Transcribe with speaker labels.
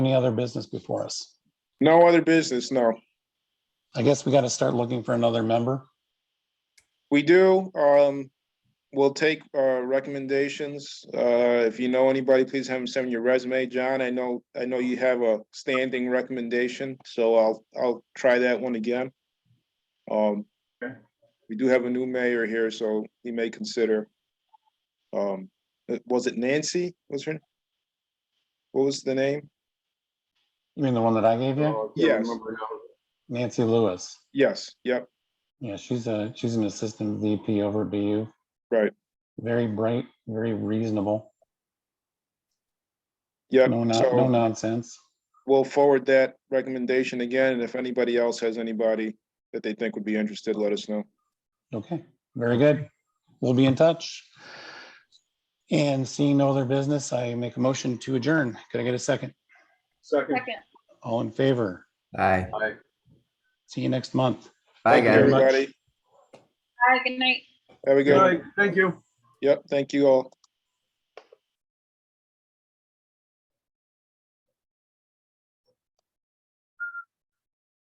Speaker 1: Any other business before us?
Speaker 2: No other business, no.
Speaker 1: I guess we got to start looking for another member.
Speaker 2: We do, um, we'll take, uh, recommendations. Uh, if you know anybody, please have them send me your resume. John, I know, I know you have a standing recommendation, so I'll, I'll try that one again. Um,
Speaker 3: Okay.
Speaker 2: we do have a new mayor here, so he may consider. Um, was it Nancy? Was her? What was the name?
Speaker 1: You mean the one that I gave you?
Speaker 3: Oh, I can't
Speaker 2: Yes.
Speaker 3: remember now.
Speaker 1: Nancy Lewis.
Speaker 2: Yes, yep,
Speaker 1: Yeah, she's a, she's an assistant VP over at BU.
Speaker 2: Right.
Speaker 1: Very bright, very reasonable,
Speaker 2: yep.
Speaker 1: no non-
Speaker 2: so-
Speaker 1: no nonsense.
Speaker 2: we'll forward that recommendation again, and if anybody else has anybody that they think would be interested, let us know.
Speaker 1: Okay, very good. We'll be in touch. And seeing no other business, I make a motion to adjourn. Could I get a second?
Speaker 3: Second,
Speaker 4: Second.
Speaker 1: All in favor?
Speaker 5: Aye.
Speaker 3: aye.
Speaker 1: See you next month.
Speaker 5: Bye,
Speaker 2: Thank you,
Speaker 5: guys.
Speaker 1: very much.
Speaker 2: everybody.
Speaker 4: Hi, good night.
Speaker 2: Have a
Speaker 3: Good
Speaker 2: good,
Speaker 3: night, thank you.
Speaker 2: yep, thank you all.